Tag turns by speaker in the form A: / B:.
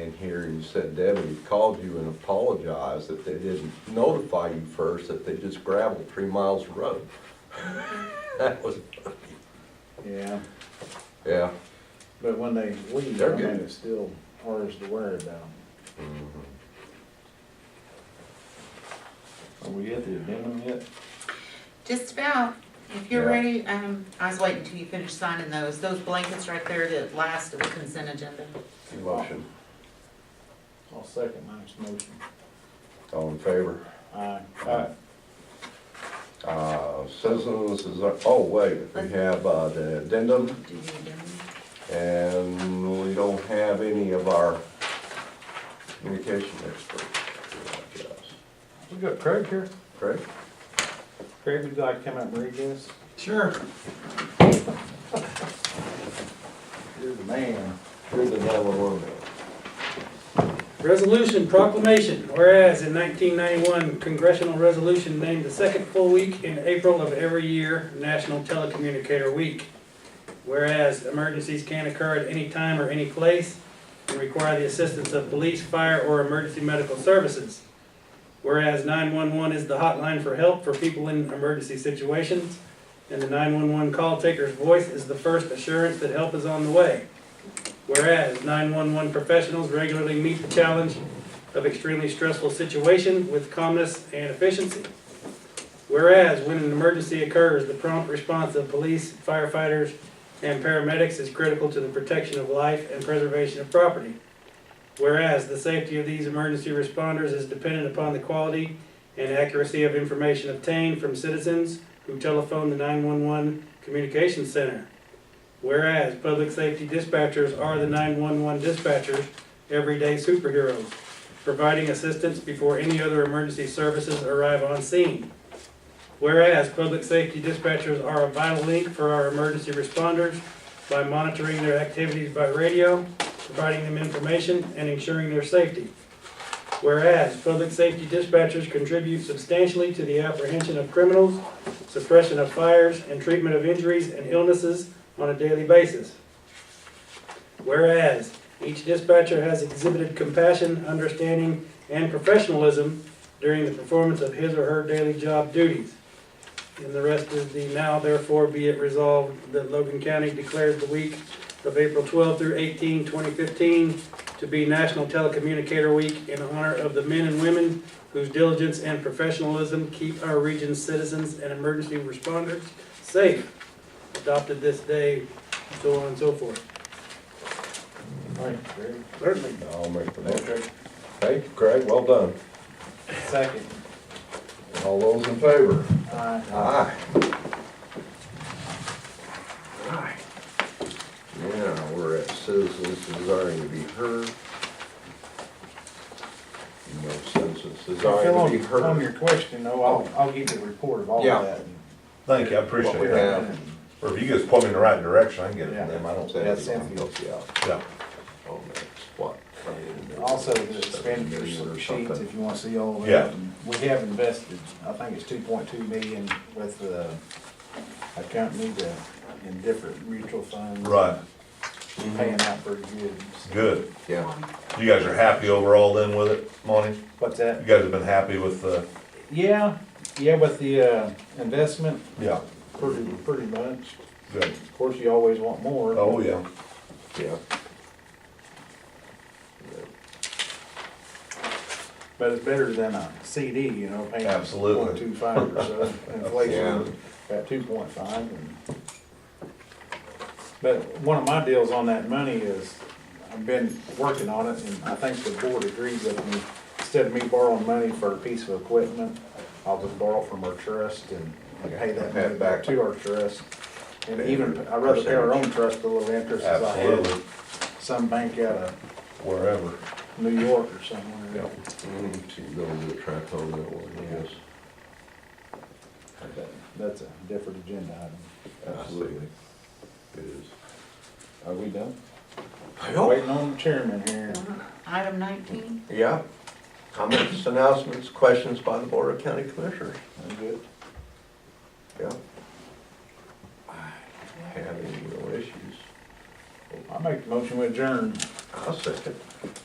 A: in here, you said Debbie called you and apologized that they didn't notify you first, that they just gravelled three miles of road. That was,
B: Yeah,
A: yeah.
B: but when they leave, I
A: They're
B: mean,
A: good.
B: it's still ours to worry about.
C: Are we at the addendum yet?
D: Just about, if you're
A: Yeah.
D: ready, um, I was waiting till you finished signing those, those blankets right there, the last of the consent agenda.
A: Motion,
B: I'll second Mike's motion.
A: all in favor?
B: Aye.
A: Aye. Uh, citizens is, oh, wait, we have uh, the addendum,
D: Do you need them?
A: and we don't have any of our communication experts.
B: We got Craig here.
A: Craig?
B: Craig, would you like to come up and read this?
C: Sure.
B: You're the man.
A: Here's the nine-one-one man.
E: Resolution proclamation, whereas in 1991 congressional resolution named the second full week in April of every year National Telecommunicator Week. Whereas emergencies can occur at any time or any place and require the assistance of police, fire, or emergency medical services. Whereas 911 is the hotline for help for people in emergency situations, and the 911 call taker's voice is the first assurance that help is on the way. Whereas 911 professionals regularly meet the challenge of extremely stressful situations with calmness and efficiency. Whereas when an emergency occurs, the prompt response of police, firefighters, and paramedics is critical to the protection of life and preservation of property. Whereas the safety of these emergency responders is dependent upon the quality and accuracy of information obtained from citizens who telephone the 911 communications center. Whereas public safety dispatchers are the 911 dispatchers, everyday superheroes, providing assistance before any other emergency services arrive on scene. Whereas public safety dispatchers are a vital link for our emergency responders by monitoring their activities by radio, providing them information, and ensuring their safety. Whereas public safety dispatchers contribute substantially to the apprehension of criminals, suppression of fires, and treatment of injuries and illnesses on a daily basis. Whereas each dispatcher has exhibited compassion, understanding, and professionalism during the performance of his or her daily job duties. And the rest is the now therefore be it resolved that Logan County declares the week of April 12 through 18, 2015 to be National Telecommunicator Week in honor of the men and women whose diligence and professionalism keep our region's citizens and emergency responders safe adopted this day, so on and so forth.
B: Thank you, Craig.
E: Certainly.
A: I'll make the motion. Thank you, Craig, well done.
B: Second.
A: All those in favor?
B: Aye.
A: Aye. Aye. Now, we're at citizens desiring to be heard. No citizens
B: Phil,
A: desiring to be
B: on- On your
A: heard.
B: question though, I'll, I'll give you a report of all of
A: Yeah.
B: that. and
F: Thank you, I
A: What
F: appreciate
A: we
F: it.
A: have.
F: Or if you guys point me in the right direction, I can get it
B: Yeah.
F: from them, I don't say
B: That's
F: anything.
B: Cynthia.
A: Help you out
F: Yeah.
A: on that spot.
B: Also, the expenditure slip sheets, if you wanna see all of
F: Yeah.
B: that. We have invested, I think it's two point two million with, uh, a company that, in different mutual funds.
F: Right, Mm-hmm.
B: Paying out pretty good.
F: good.
A: Yeah,
F: You guys are happy overall then with it, Monty?
B: What's
F: You
B: that?
F: guys have been happy with the,
B: Yeah, yeah, with the, uh, investment,
F: yeah,
B: pretty, pretty much.
F: good.
B: Of course, you always want more.
F: Oh, yeah.
A: yeah.
B: But it's better than a CD, you know, paying.
F: Absolutely.
B: Point two five or so,
A: Yeah.
B: inflation at two point five and. But one of my deals on that money is, I've been working on it and I think the board agrees with me. Instead of me borrowing money for a piece of equipment, I'll just borrow from our trust and and pay that
A: Pay
B: money
A: it back.
B: back to our trust. And even, I'd rather pay our own trust a little interest as I
F: Absolutely,
B: had some bank out of
F: wherever.
B: New York or somewhere.
F: Yeah.
A: Mm, So you go to the track on that one, yes.
B: But That's a different agenda item.
A: Absolutely. It is.
B: Are we done?
A: Wait,
B: Waiting on the chairman here.
D: Item nineteen,
A: Yeah. Comments, announcements, questions by the Board of County Commissioners?
B: I'm good.
A: Yeah. Having no issues.
B: I make the motion with adjourn.
A: I'll second.